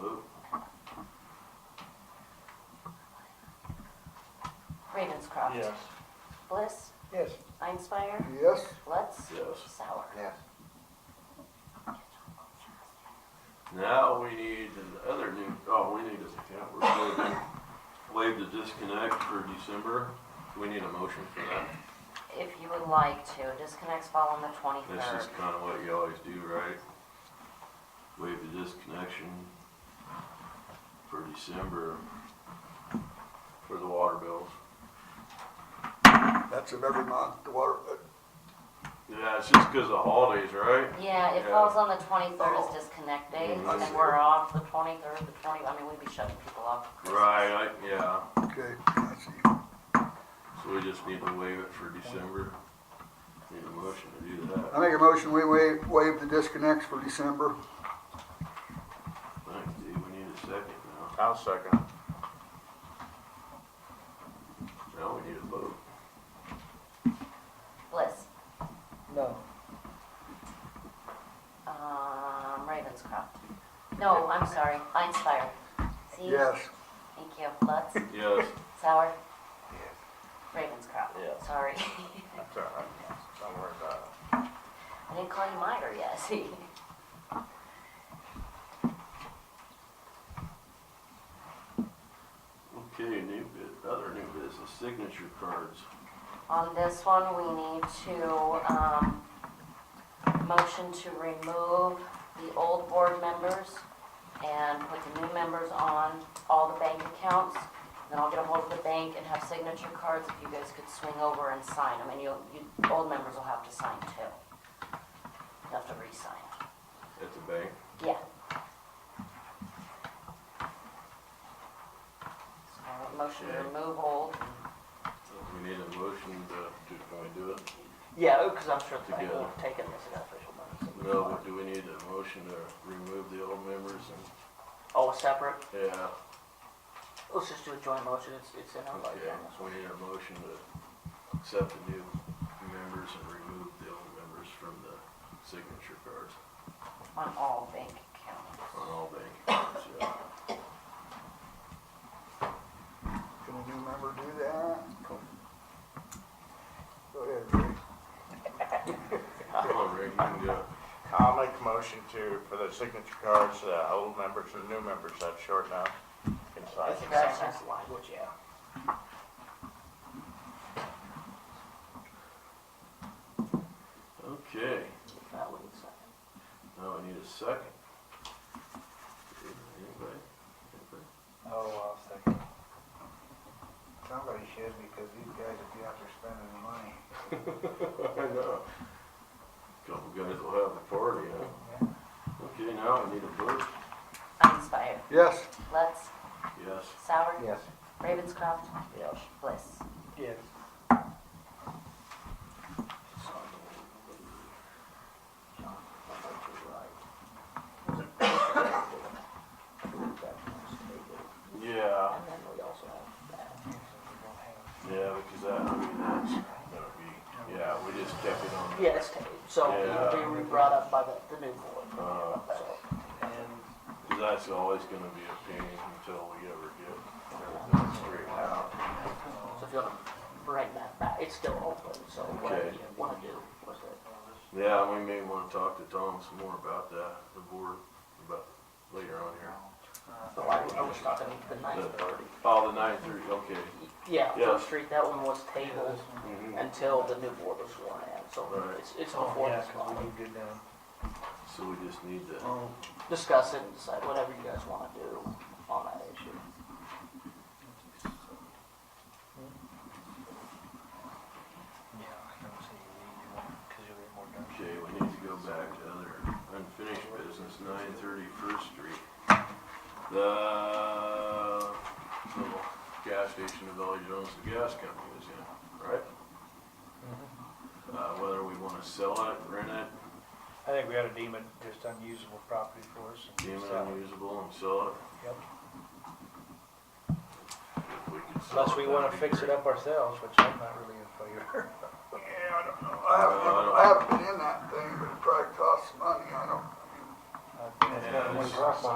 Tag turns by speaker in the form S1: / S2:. S1: move.
S2: Ravenscroft.
S3: Yes.
S2: Bliss,
S4: Yes.
S2: Einspire,
S4: Yes.
S2: Lutz.
S1: Yes.
S2: Sauer.
S4: Yes.
S1: Now we need another new, oh, we need a, yeah, we're waiving, waive the disconnect for December. We need a motion for that.
S2: If you would like to, disconnects fall on the
S1: This
S2: twenty-third.
S1: is kind of what you always do, right? Waive the disconnection for December for the water bills.
S4: That's of every month, the water, uh,
S1: Yeah, it's just because of holidays, right?
S2: Yeah, it
S1: Yeah.
S2: falls on the twenty-third
S4: Oh.
S2: as disconnect days,
S1: Mm, I
S2: and
S4: see.
S2: we're off the twenty-third, the twenty, I mean, we'd be shutting people off. for Christmas.
S1: Right, I- yeah.
S4: okay, I see.
S1: So we just need to waive it for December. Need a motion to do that.
S4: I make a motion, we waive, waive the disconnects for December.
S1: Thanks, Dee. We need a second now.
S3: I'll second.
S1: Now we need a vote.
S2: Bliss,
S3: No.
S2: um, Ravenscroft. No, I'm sorry, Einspire. See?
S4: Yes.
S2: Thank you. Lutz,
S1: Yes.
S2: Sauer. Ravenscroft.
S3: Yeah.
S2: Sorry.
S3: That's all right. Don't worry about it.
S2: I didn't call you Myra yet, see?
S1: Okay, new bit, other new business, signature cards.
S2: On this one, we need to, um, motion to remove the old board members and put the new members on all the bank accounts. Then I'll get a hold of the bank and have signature cards if you guys could swing over and sign them, and you, you, old members will have to sign too. You'll have to re-sign.
S1: At the bank.
S2: Yeah. So, motion to remove old.
S1: We need a motion to, to, can we do it?
S5: Yeah, because I'm sure the bank
S1: Together.
S5: will have taken this in official minutes.
S1: No, but do we need a motion to remove the old members and,
S5: All Oh, separate?
S1: yeah,
S5: Let's just do a joint motion, it's, it's in our
S1: okay.
S5: motion.
S1: So we need a motion to accept the new members and remove the old members from the signature cards
S2: on all bank accounts.
S1: on all bank cards, yeah.
S4: Can a new member do that? Go ahead, Rick.
S1: Come on, Rick, you can do it.
S3: I'll make a motion to, for the signature cards, uh, old members and new members, that's short now. Can sign.
S5: That's exactly the language, yeah.
S1: Okay,
S5: That would be second.
S1: now I need a second. Anybody? Anybody?
S6: Oh, I'll second. Somebody should, because these guys would be out there spending the money.
S1: I know. Couple guys will have a party, huh? Okay, now I need a vote.
S2: Einspire,
S4: Yes.
S2: Lutz,
S1: Yes.
S2: Sauer,
S6: Yes.
S2: Ravenscroft,
S3: Yes.
S2: Bliss.
S6: Yes.
S1: Yeah,
S5: And then we also have that.
S1: yeah, because that, I mean, that's gonna be, yeah, we just kept it on.
S5: Yeah, it's taken, so it'll be re-brought up by the, the new board.
S1: Uh,
S5: So,
S6: And
S1: cause that's always gonna be a pain until we ever get everything straightened out.
S5: so if you wanna bring that back, it's still open, so
S1: Okay.
S5: whatever you wanna do with it.
S1: Yeah, we may wanna talk to Tom some more about that, the board, about later on here.
S5: uh, So I, I was talking the nine thirty.
S1: Oh, the nine thirty, okay. Mm-hmm.
S5: Yeah,
S1: Yeah.
S5: First Street, that one was tabled until the new board was sworn in, so
S1: Right.
S5: it's, it's before
S6: Oh, yeah,
S5: this
S6: 'cause we
S5: body.
S6: do good now.
S1: So we just need to,
S6: Oh,
S5: discuss it and decide whatever you guys wanna do on that issue.
S6: yeah, I don't see you need to, because you'll get more done.
S1: okay, we need to go back to other unfinished business, nine thirty First Street. The little gas station of Valley Jones, the gas company was in, right? Uh, whether we wanna sell it, rent it,
S6: Mm-hmm. I think we ought to deem it just unusable property for us. and
S1: deem it
S6: sell it.
S1: unusable and sell it.
S6: Yep.
S1: If we could sell
S6: Unless we
S1: it,
S6: want to
S1: that'd be
S6: fix it
S1: great.
S6: up ourselves, which I'm not really in favor.
S4: Yeah, I don't know. I haven't, I haven't been in that thing, but it probably costs money. I don't,
S6: I've been-
S1: Yeah, it's-
S6: Rock